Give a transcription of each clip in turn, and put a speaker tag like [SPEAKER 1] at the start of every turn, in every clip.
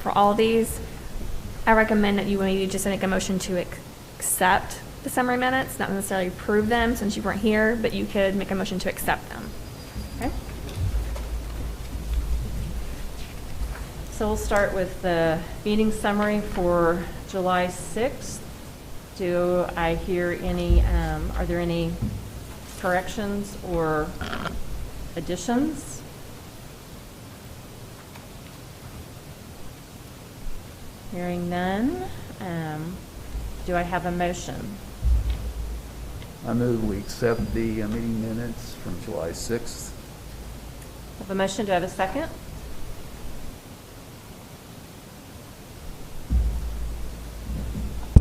[SPEAKER 1] for all these. I recommend that you maybe just make a motion to ac- accept the summary minutes, not necessarily approve them since you weren't here, but you could make a motion to accept them.
[SPEAKER 2] Okay. So we'll start with the meeting summary for July 6th. Do I hear any, um, are there any corrections or additions? Hearing none, um, do I have a motion?
[SPEAKER 3] I move we accept the uh, meeting minutes from July 6th.
[SPEAKER 2] Have a motion, do I have a second?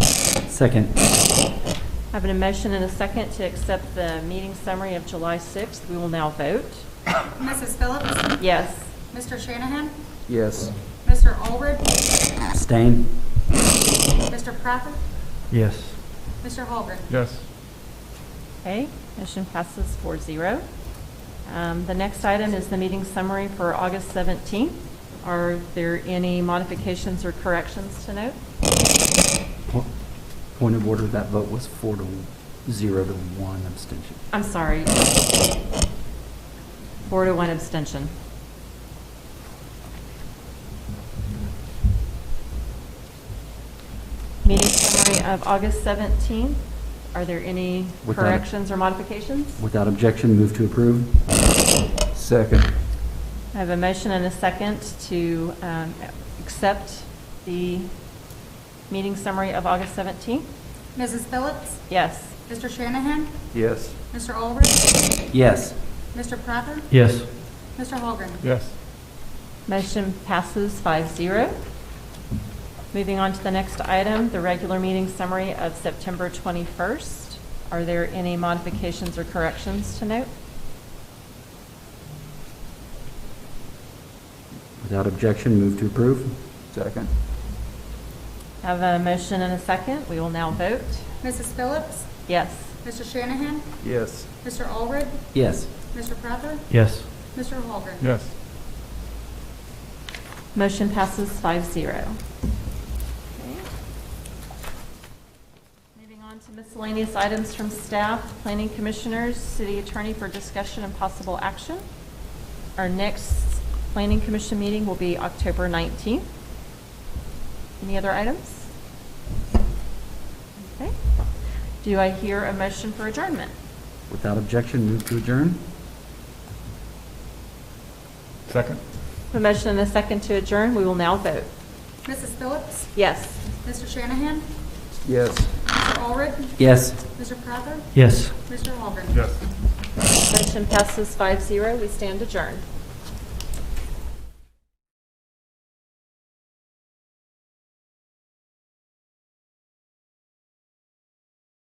[SPEAKER 4] Second.
[SPEAKER 2] Having a motion and a second to accept the meeting summary of July 6th, we will now vote.
[SPEAKER 5] Mrs. Phillips?
[SPEAKER 2] Yes.
[SPEAKER 5] Mr. Shanahan?
[SPEAKER 3] Yes.
[SPEAKER 5] Mr. Allred?
[SPEAKER 4] Abstain.
[SPEAKER 5] Mr. Propper?
[SPEAKER 4] Yes.
[SPEAKER 5] Mr. Holgren?
[SPEAKER 6] Yes.
[SPEAKER 2] Okay, motion passes 4-0. Um, The next item is the meeting summary for August 17th. Are there any modifications or corrections to note?
[SPEAKER 4] Po- Point of order, that vote was four to, zero to one abstention.
[SPEAKER 2] I'm sorry. Four to one abstention. Meeting summary of August 17th. Are there any
[SPEAKER 4] Without-
[SPEAKER 2] corrections or modifications?
[SPEAKER 4] Without objection, move to approve.
[SPEAKER 3] Second.
[SPEAKER 2] I have a motion and a second to um, accept the meeting summary of August 17th.
[SPEAKER 5] Mrs. Phillips?
[SPEAKER 2] Yes.
[SPEAKER 5] Mr. Shanahan?
[SPEAKER 3] Yes.
[SPEAKER 5] Mr. Allred?
[SPEAKER 4] Yes.
[SPEAKER 5] Mr. Propper?
[SPEAKER 4] Yes.
[SPEAKER 5] Mr. Holgren?
[SPEAKER 6] Yes.
[SPEAKER 2] Motion passes 5-0. Moving on to the next item, the regular meeting summary of September 21st. Are there any modifications or corrections to note?
[SPEAKER 4] Without objection, move to approve.
[SPEAKER 3] Second.
[SPEAKER 2] I Have a motion and a second. We will now vote.
[SPEAKER 5] Mrs. Phillips?
[SPEAKER 2] Yes.
[SPEAKER 5] Mr. Shanahan?
[SPEAKER 3] Yes.
[SPEAKER 5] Mr. Allred?
[SPEAKER 4] Yes.
[SPEAKER 5] Mr. Propper?
[SPEAKER 4] Yes.
[SPEAKER 5] Mr. Holgren?
[SPEAKER 6] Yes.
[SPEAKER 2] Motion passes 5-0. Moving on to miscellaneous items from staff, planning commissioners, city attorney for discussion and possible action. Our next planning commission meeting will be October 19th. Any other items? Okay. Do I hear a motion for adjournment?
[SPEAKER 4] Without objection, move to adjourn.
[SPEAKER 6] Second?
[SPEAKER 2] A motion and a second to adjourn. We will now vote.
[SPEAKER 5] Mrs. Phillips?
[SPEAKER 2] Yes.
[SPEAKER 5] Mr. Shanahan?
[SPEAKER 3] Yes.
[SPEAKER 5] Mr. Allred?
[SPEAKER 4] Yes.
[SPEAKER 5] Mr. Propper?
[SPEAKER 4] Yes.
[SPEAKER 5] Mr. Holgren?
[SPEAKER 6] Yes.
[SPEAKER 2] Motion passes 5-0. We stand adjourned.